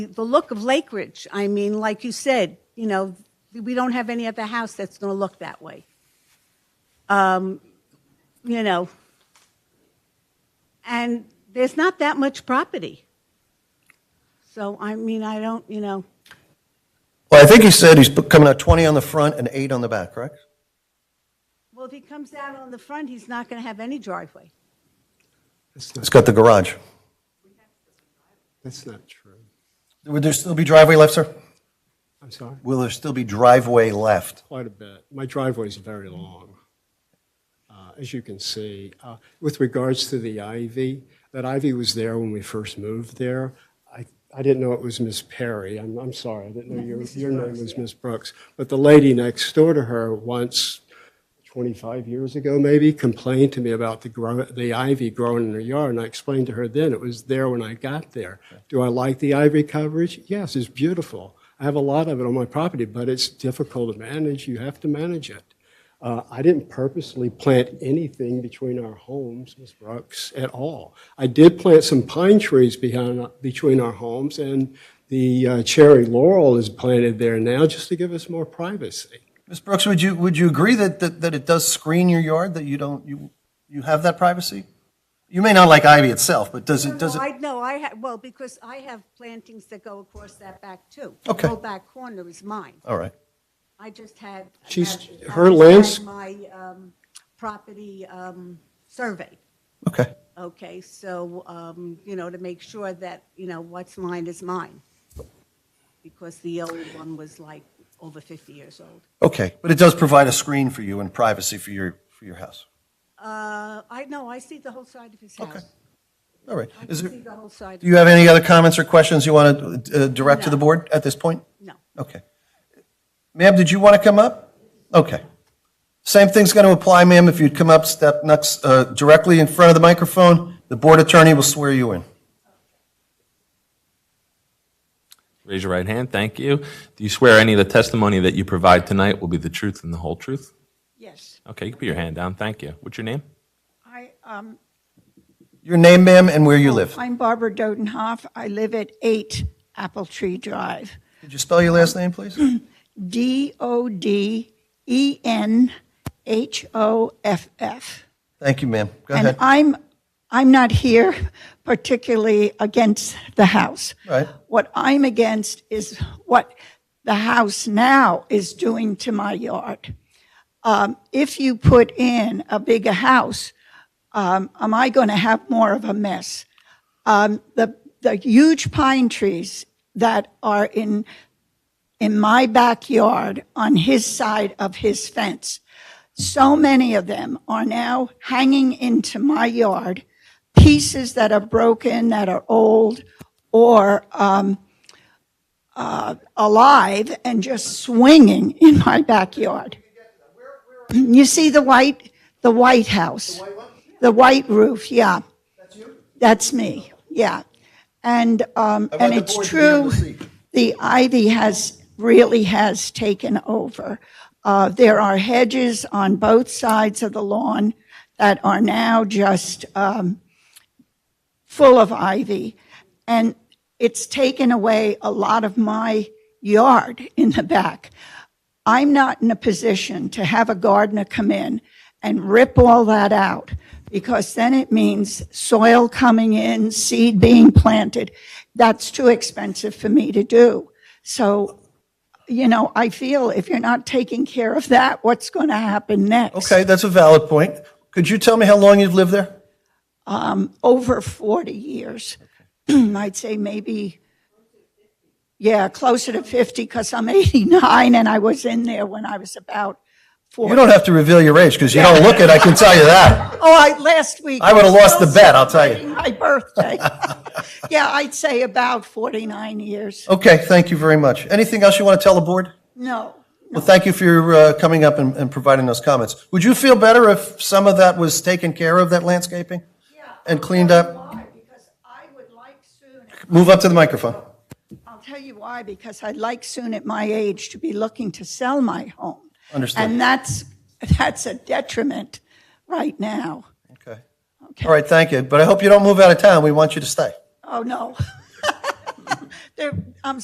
the look of Lake Ridge, I mean, like you said, you know, we don't have any other house that's going to look that way. Um, you know, and there's not that much property. So, I mean, I don't, you know, Well, I think he said he's put- coming out 20 on the front and eight on the back, correct? well, if he comes out on the front, he's not going to have any driveway. It's got the garage. That's not true. Would there still be driveway left, sir? I'm sorry. Will there still be driveway left? Quite a bit. My driveway is very long, uh, as you can see. Uh, With regards to the ivy, that ivy was there when we first moved there. I I didn't know it was Miss Perry. I'm I'm sorry, I didn't know your your name was Miss Brooks. But the lady next door to her once, 25 years ago maybe, complained to me about the grow- the ivy growing in her yard, and I explained to her then it was there when I got there. Do I like the ivy coverage? Yes, it's beautiful. I have a lot of it on my property, but it's difficult to manage. You have to manage it. Uh, I didn't purposely plant anything between our homes, Ms. Brooks, at all. I did plant some pine trees behind, between our homes, and the uh, cherry laurel is planted there now just to give us more privacy. Ms. Brooks, would you, would you agree that, that, that it does screen your yard, that you don't, you, you have that privacy? You may not like ivy itself, but does it, does it? I, no, I have, well, because I have plantings that go across that back too. Okay. The whole back corner is mine. All right. I just had. She's- I just her had lands- My um, property um, survey, Okay. okay? So, um, you know, to make sure that, you know, what's mine is mine. Because the old one was like over 50 years old. Okay. But it does provide a screen for you and privacy for your, for your house. Uh, I know, I see the whole side of his house. All right. I can Is see there, the whole side. do you have any other comments or questions you want to uh, direct to the No. board at this point? No. Okay. Ma'am, did you want to come up? Okay. Same thing's going to apply, ma'am, if you'd come up, step next, uh, directly in front of the microphone. The board attorney will swear you in. Raise your right hand. Thank you. Do you swear any of the testimony that you provide tonight will be the truth and the whole truth? Yes, Okay, you can put your hand down. Thank you. What's your name? I, um, Your name, ma'am, and where you live. I'm Barbara Dodenhoff. I live at 8 Apple Tree Drive. Could you spell your last name, please? D O D E N H O F F. Thank you, ma'am. Go And ahead. I'm, I'm not here particularly against the house. Right. What I'm against is what the house now is doing to my yard. Um, If you put in a bigger house, um, am I going to have more of a mess? Um, The, the huge pine trees that are in, in my backyard on his side of his fence, so many of them are now hanging into my yard, pieces that are broken, that are old, or um, uh, alive and just swinging in my backyard. You see the white, the White House? The white roof, yeah. That's you? That's me, yeah. And, um, want and the it's board to be able true, to see. the ivy has, really has taken over. Uh, There are hedges on both sides of the lawn that are now just um, full of ivy. And it's taken away a lot of my yard in the back. I'm not in a position to have a gardener come in and rip all that out because then it means soil coming in, seed being planted. That's too expensive for me to do. So, you know, I feel if you're not taking care of that, what's going to happen next? Okay, that's a valid point. Could you tell me how long you've lived there? Over 40 years. I'd say maybe, yeah, closer to 50 because I'm 89 and I was in there when I was about 40. You don't have to reveal your age because you don't look it, I can tell you that. Oh, I, last week. I would have lost the was bet, I'll tell you. My birthday. Yeah, I'd say about 49 years. Okay, thank you very much. Anything else you want to tell the board? No. Well, thank you for your, uh, coming up and, and providing those comments. Would you feel better if some of that was taken care of, that landscaping? And cleaned up? Because I would like soon, Move up to the microphone. I'll tell you why, because I'd like soon at my age to be looking to sell my home. Understood. And that's, that's a detriment right now. Okay. Okay. All right, thank you. But I hope you don't move out of town. We want you to stay. Oh, no. Oh, There, I'm